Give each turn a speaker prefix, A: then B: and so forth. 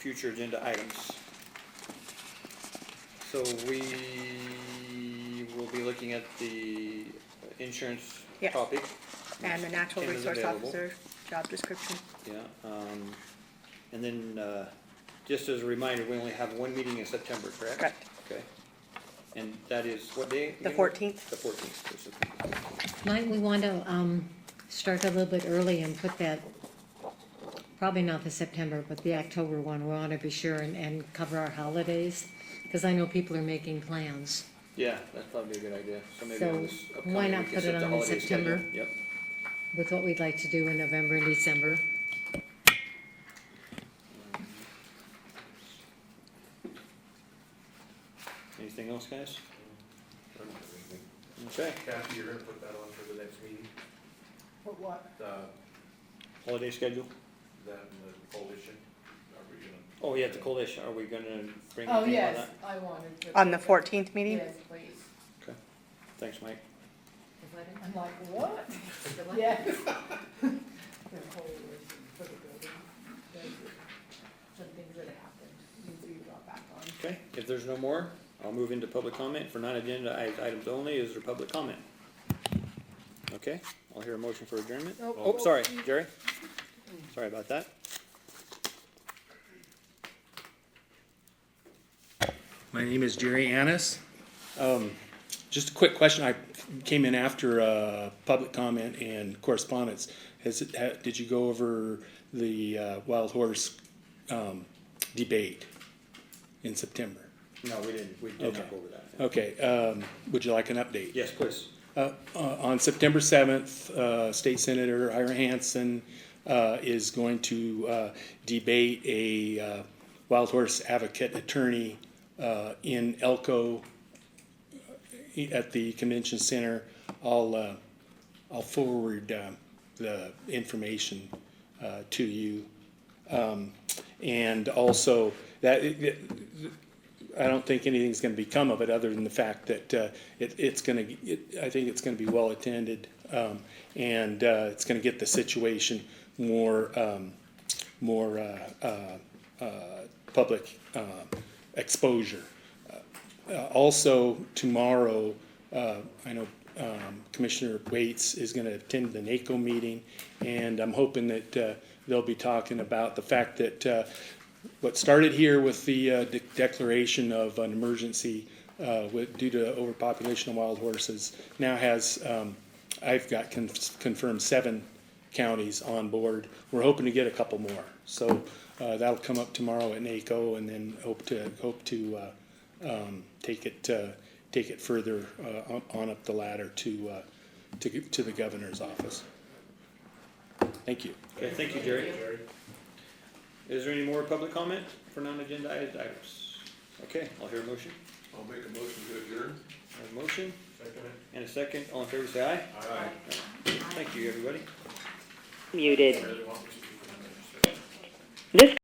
A: future agenda items. So we will be looking at the insurance
B: Yes.
A: topic.
B: And the natural
A: Kim is
B: resource
A: available.
B: officer job description.
A: Yeah, um, and then, uh, just as a reminder, we only have one meeting in September, correct?
B: Correct.
A: Okay. And that is what day?
B: The
A: again?
B: 14th.
A: The fourteenth. of September.
C: Might we want to um, start a little bit early and put that, probably not the September, but the October one, we want to be sure and, and cover our holidays? Because I know people are making plans.
A: Yeah, that's probably a good idea. So maybe on
C: So
A: this
C: why
A: upcoming, we
C: not
A: can
C: put
A: set
C: it
A: the
C: on in
A: holiday schedule.
C: September?
A: Yep.
C: with what we'd like to do in November and December.
A: Anything else, guys? Okay,
D: Kathy, you're gonna put that on for the next meeting,
E: For what?
D: the,
A: holiday schedule?
D: that and the coalition, are we gonna?
A: Oh, yeah, the coalition, are we gonna bring anything
E: Oh,
A: on that?
E: yes, I wanted to.
B: On the fourteenth meeting?
E: Yes, please.
A: Thanks, Mike.
E: I'm like, what? Yes. The whole reason for the building, those are some things that happened, needs to be brought back on.
A: Okay, if there's no more, I'll move into public comment. For non-agenda i- items only, is there public comment? Okay, I'll hear a motion for adjournment.
E: Nope.
A: Oh, sorry, Jerry. Sorry about that.
F: My name is Jerry Annis. Um, Just a quick question. I came in after uh, public comment and correspondence. Has, it- ha- did you go over the uh, wild horse um, debate in September?
A: No, we didn't, we did
F: Okay.
A: not go over that.
F: Okay, um, would you like an update?
A: Yes, please.
F: Uh, uh, on September seventh, uh, State Senator Ira Hansen, uh, is going to, uh, debate a, uh, wild horse advocate attorney, uh, in Elko uh, at the convention center. I'll, uh, I'll forward, um, the information, uh, to you. Um, and also that, it- I don't think anything's gonna become of it, other than the fact that, uh, it, it's gonna, it, I think it's gonna be well attended. Um, and, uh, it's gonna get the situation more, um, more, uh, uh, uh, public, uh, exposure. Uh, also, tomorrow, uh, I know, um, Commissioner Waits is gonna attend the NACO meeting, and I'm hoping that, uh, they'll be talking about the fact that, uh, what started here with the uh, de- declaration of an emergency uh, with, due to overpopulation of wild horses now has, um, I've got con- confirmed seven counties on board. We're hoping to get a couple more. So uh, that'll come up tomorrow at NACO and then hope to, hope to uh, um, take it, uh, take it further uh, on- on up the ladder to, uh, to, g- to the governor's office. Thank you.
A: Okay, thank you, Jerry. Is there any more public comment for non-agenda i- items? Okay, I'll hear a motion.
D: I'll make a motion to adjourn.
A: I have A motion
D: Second.
A: and a second. All in favor, say aye.
D: Aye.
A: Thank you, everybody.
G: Muted.
D: Really want me to do that.
G: This